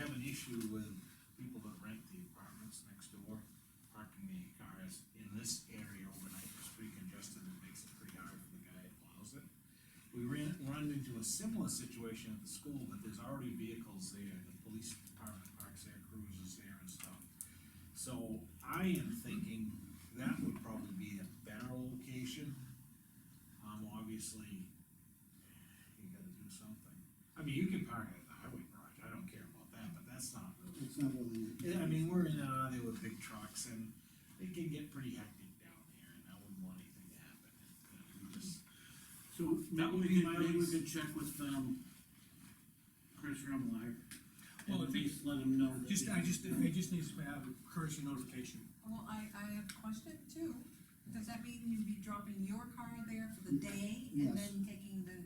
have an issue with people that rent the apartments next door, parking the cars in this area overnight, it's pretty congested, it makes it pretty hard for the guy that plows it. We ran, run into a similar situation at the school, but there's already vehicles there, the police department parks their cruisers there and stuff. So I am thinking that would probably be a better location. Um, obviously, you gotta do something. I mean, you can park it at the highway garage, I don't care about that, but that's not really. It's not really, Yeah, I mean, we're in and out of there with big trucks and it can get pretty hectic down there and I wouldn't want anything to happen. You know, we just- So That maybe would we be could, maybe we nice. could check with, um, Chris Remillard. And Well, I at think- least let him know. that Just, we- I just, I just need to have a courtesy notification. Well, I, I have a question too, does that mean you'd be dropping your car there for the day Yes. and then taking the?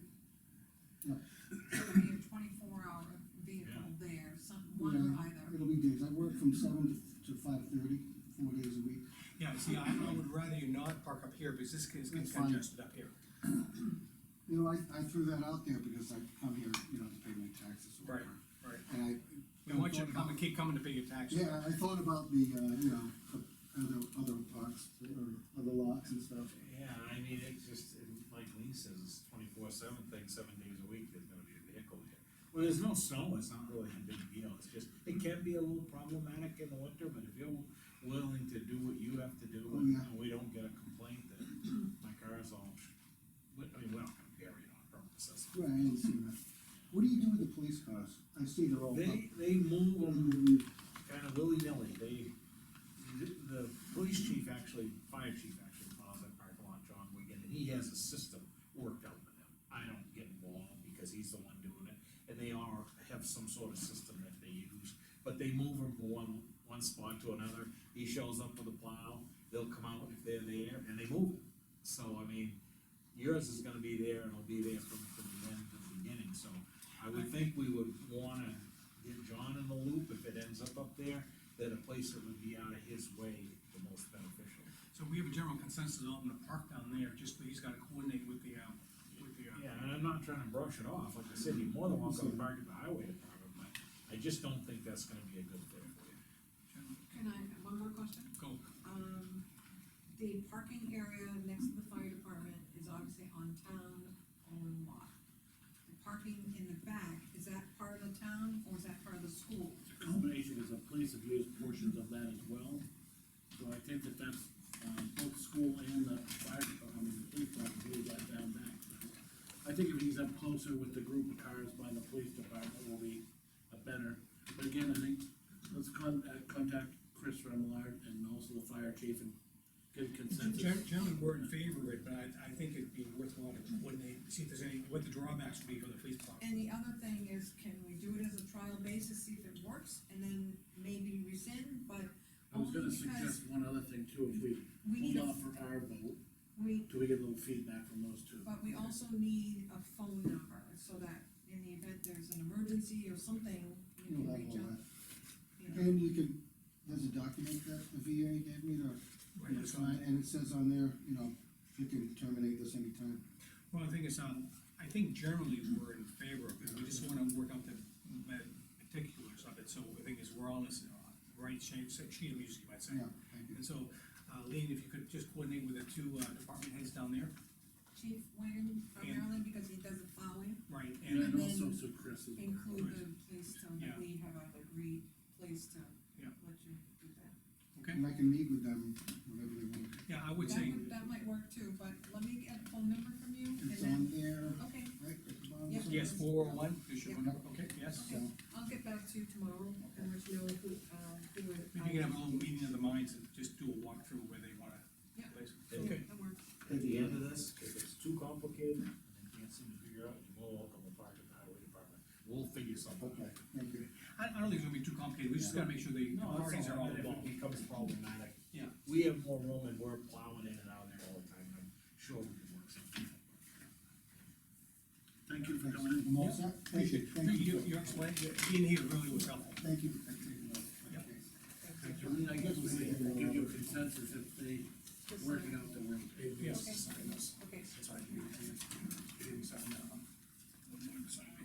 Yeah. So it'd be a twenty-four hour vehicle there, some, one or Yeah. either, it'll be days, I work from seven to, to five thirty, four days a week. Yeah, see, I, I would rather you not park up here, because this is That's fine. congested up here. You know, I, I threw that out there because I come here, you know, to pay my taxes or whatever. right. And I. We want you to come and keep coming to pay your taxes. Yeah, I thought about the, uh, you know, the other, other parks, or other locks and stuff. Yeah, I mean, it's just, and like Lee says, it's twenty-four seven thing, seven days a week, there's gonna be a vehicle here. Well, there's no snow, it's not really a big deal, it's just, it can be a little problematic in the winter, but if you're willing to do what you have to do, Oh, and yeah. we don't get a complaint that my car is all, sh- we- I mean, we're not gonna carry it on purpose, that's. Right, I didn't see that. What do you do with the police cars? I see they're all. up. They, they move them Um, kind of willy-nilly, they, the, the police chief actually, fire chief actually plows that parking lot, John Wigan, and he has a system worked out with them. I don't get involved because he's the one doing it, and they are, have some sort of system that they use, but they move them from one, one spot to another. He shows up with a plow, they'll come out if they're there, and they move it. So, I mean, yours is gonna be there, and it'll be there from, from the end to the beginning, so I would think we would wanna get John in the loop if it ends up up there, that a place that would be out of his way the most beneficial. So we have a general consensus on the park down there, just that he's gotta coordinate with the, um, with the, uh, Yeah, and I'm not trying to brush it off, like I said, you're more than welcome to park at the highway department, but I just don't think that's gonna be a good thing for you. general- can I, one more question? go. Um, the parking area next to the fire department is obviously on town own lot. The parking in the back, is that part of the town or is that part of the school? It's a combination, because the police have used portions of that as well. So I think that that's, um, both school and the fire, department, I mean, the police department use that down back. I think if he's up closer with the group of cars by the police department will be a better, but again, I think, let's contact, contact Chris Remillard and also the fire chief and get consensus. Gen- Generally, we're in favor of it, but I, I think it'd be worthwhile to coordinate, see if there's any, what the drawbacks would be for the police department. And the other thing is, can we do it as a trial basis, see if it works, and then maybe rescind, but I was gonna only because suggest one other thing too, if we Oh, we need, hold a off for our vote, we, till we get a little feedback from those two. but we also need a phone number, so that in the event there's an emergency or something, you you know, can that reach whole out. lot. you know. And you can, there's a document that the VA gave me to, you know, sign, and it says on there, you know, you can terminate this anytime. Well, the thing is, um, I think generally we're in favor of it, we just wanna work out the the particulars of it, so the thing is, we're all in this uh, right shape, sheet of music, you might say. Yeah, thank you. And so, uh, Lean, if you could just coordinate with the two, uh, department heads down there, Chief Wayne primarily, because he does the plowing, right, And and, then And also, then so Chris is. include the place to, Yeah. we have an agreed place to Yeah. let you do that. okay? And I can meet with them whenever they want. Yeah, I would That say, would, that might work too, but let me get a phone number from you, and It's then, on there, okay, right, at the bottom. Yep. yes, four oh one, you should, Yeah. okay, yes. So, I'll get back to you tomorrow, and let you know who, uh, who. it- Maybe you can have a little meeting of the minds and just do a walkthrough where they wanna. Yeah. place it. Yeah, Okay, that works. At the end of this, if it's too complicated and they can't seem to figure out, you're more welcome to park at the highway department. We'll figure something okay, out. thank you. I, I don't think it's gonna be too complicated, we just gotta make sure the No, parties are all if it involved. becomes problematic. Yeah. We have more room and we're plowing in and out there all the time, and I'm sure we can work something out. Thank you for Thanks. coming in. I'm all set? Thank you, thank You, you. you explained, being here really was helpful. Thank you. for taking notes. Yep. Okay. I mean, I guess we can give you a consensus if they Just work it sign. out the way. Yes. Okay. Okay. That's why I do it. Give me something, uh, one more to sign.